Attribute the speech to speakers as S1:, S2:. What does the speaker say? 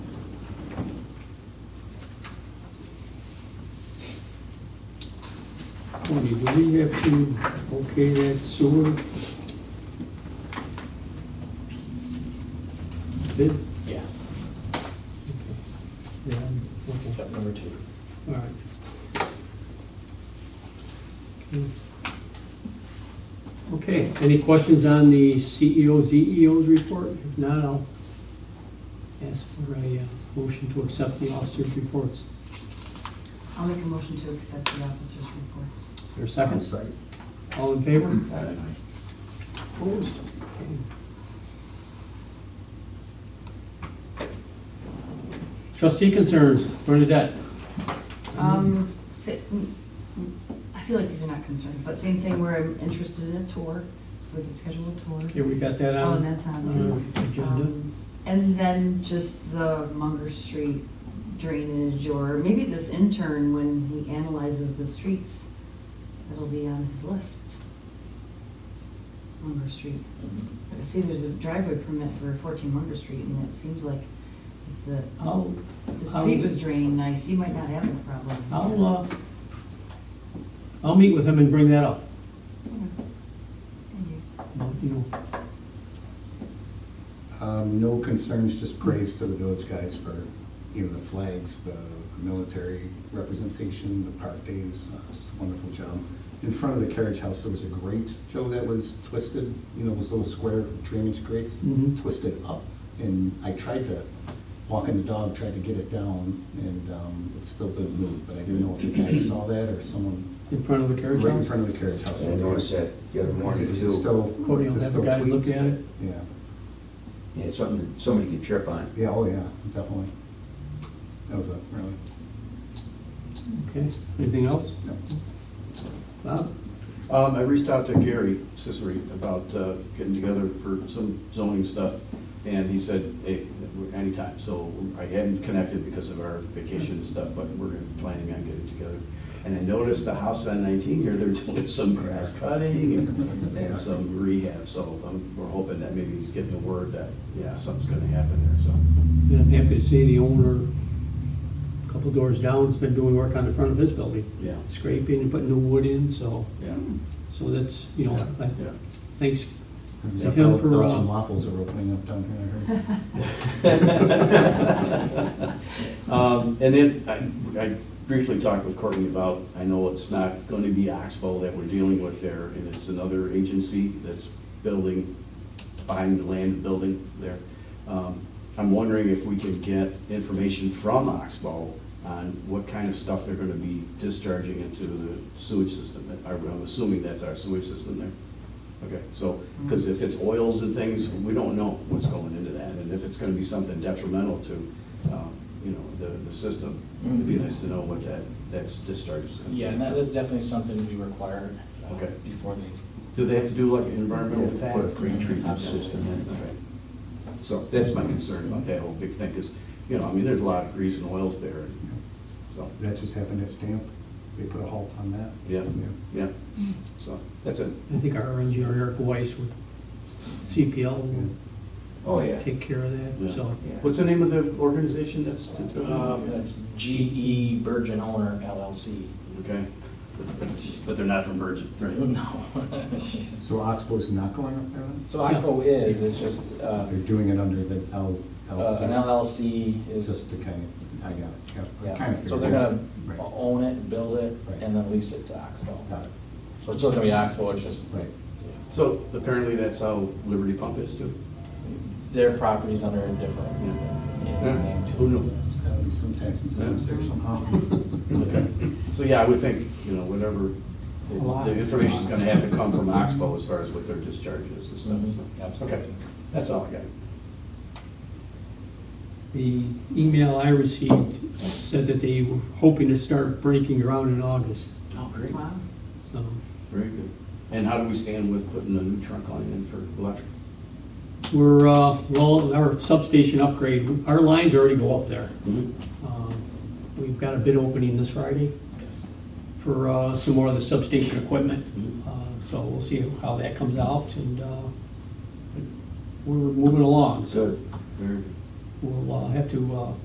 S1: twenty, do we have to okay that sewer? Bid?
S2: Yes,
S1: Yeah, okay,
S2: step number two.
S1: all right. Okay. Okay, any questions on the E CEO, CEO's report? If not, I'll ask for a uh, motion to accept the officers' reports.
S3: I'll make a motion to accept the officers' reports.
S1: Is there a second? All in favor? Opposed? Trustee concerns, Bernadette?
S3: Um,
S1: Mm-hmm.
S3: sa- mm, mm, I feel like these are not concerned, but same thing where I'm interested in a tour, we can schedule a tour.
S1: Okay, we got that
S3: Oh, and
S1: on?
S3: that's on
S1: Uh,
S3: there.
S1: agenda.
S3: Um, And then just the Munger Street drainage, or maybe this intern, when he analyzes the streets, it'll be on his list. Munger Street. I see there's a driveway permit for fourteen Munger Street, and it seems like if the,
S1: I'll,
S3: if the
S1: I'll-
S3: street was drained nice, he might not have a problem.
S1: I'll, uh, I'll meet with him and bring that up,
S3: Thank you.
S1: Well, you know.
S4: Um, No concerns, just praise to the village guys for, you know, the flags, the military representation, the park days, uh, just a wonderful job. In front of the carriage house, there was a grate, Joe, that was twisted, you know, those little square drainage grates,
S1: Mhm.
S4: twisted up. And I tried to, walking the dog, tried to get it down, and um, it still didn't move. But I didn't know if you guys saw that or someone
S1: In front of the carriage
S4: right in
S1: house?
S4: front of the carriage house.
S5: I noticed that the other morning
S4: Is it
S5: too.
S4: still,
S1: Courtney
S4: is
S1: will
S4: it
S1: have the
S4: still
S1: guys look
S4: tweaked?
S1: at it.
S4: Yeah,
S5: Yeah, it's something that somebody could trip on.
S4: yeah, oh yeah, definitely. That was a really,
S1: Okay, anything else?
S4: no.
S1: Bob?
S6: Um, I reached out to Gary Cicery about uh, getting together for some zoning stuff, and he said, hey, anytime, so I hadn't connected because of our vacation and stuff, but we're planning on getting together. And I noticed the house on nineteen here, they're doing some grass cutting and, and some rehab, so um, we're hoping that maybe he's getting the word that, yeah, something's gonna happen there, so.
S1: And I'm happy to see the owner, a couple doors down, has been doing work on the front of his building,
S6: Yeah,
S1: scraping and putting new wood in, so,
S6: yeah,
S1: so that's, you know, I
S6: yeah.
S1: thanks.
S4: There's
S1: Thank
S4: a
S1: him for,
S4: Bel- Belgian
S1: uh,
S4: waffles are opening up down here, I heard.
S6: Um, And then I- I briefly talked with Courtney about, I know it's not going to be Oxbow that we're dealing with there, and it's another agency that's building, buying the land, building there. Um, I'm wondering if we can get information from Oxbow on what kind of stuff they're going to be discharging into the sewage system. I'm assuming that's our sewage system there. Okay, so, because if it's oils and things, we don't know what's going into that, and if it's gonna be something detrimental to, um, you know, the, the system, it'd
S5: Mm-hmm.
S6: be nice to know what that, that discharge is gonna be.
S2: Yeah, and that is definitely something we required uh,
S6: Okay.
S2: before they,
S6: Do they have to do like an environmental
S5: Yeah,
S6: impact?
S5: for a pre-treatment system.
S6: Okay. So that's my concern about that whole big thing, because, you know, I mean, there's a lot of grease and oils there, and so,
S4: That just happened at Stamp. They put a halt on that.
S6: yeah, yeah, so, that's it.
S1: I think our engineer Eric Weiss with CPL will
S5: Oh, yeah.
S1: take care of that,
S6: Yeah.
S1: so.
S5: Yeah.
S6: What's the name of the organization that's? that's building?
S2: uh, that's GE Virgin Owner LLC.
S6: Okay. But they're not from Virgin, right?
S2: No.
S4: So Oxbow's not going up there then?
S2: So Oxbow is, it's just, uh,
S4: They're doing it under the L,
S2: uh, an
S4: LC,
S2: LLC is,
S4: just to kind of, I got it, got it, I kind
S2: yeah,
S4: of
S2: so
S4: figured
S2: they're
S4: it out.
S2: gonna
S4: Right.
S2: own it, build it,
S4: Right.
S2: and then lease it to Oxbow.
S4: Got it.
S2: So it's still gonna be Oxbow, it's just,
S4: Right,
S6: So apparently that's how Liberty Pump is too.
S2: their property's under a different yeah, name to
S6: Who
S2: it.
S6: knew?
S4: there's gotta be some tax incentives there somehow.
S6: Okay. So yeah, I would think, you know, whatever, the information's gonna have to come from Oxbow as far as what their discharge is and stuff.
S2: Mhm,
S6: so.
S2: absolutely.
S6: Okay, that's all I got.
S1: The email I received said that they were hoping to start breaking ground in August,
S6: Oh, great.
S3: Wow.
S1: so.
S6: Very good. And how do we stand with putting a new trunk line in for electric?
S1: We're, uh, well, our substation upgrade, our lines already go up there.
S6: Mm-hmm.
S1: Um, We've got a bid opening this Friday for uh, some more of the substation equipment.
S6: Mhm.
S1: Uh, So we'll see how that comes out and uh, we're moving along. So
S6: Very good.
S1: we'll uh, have to uh,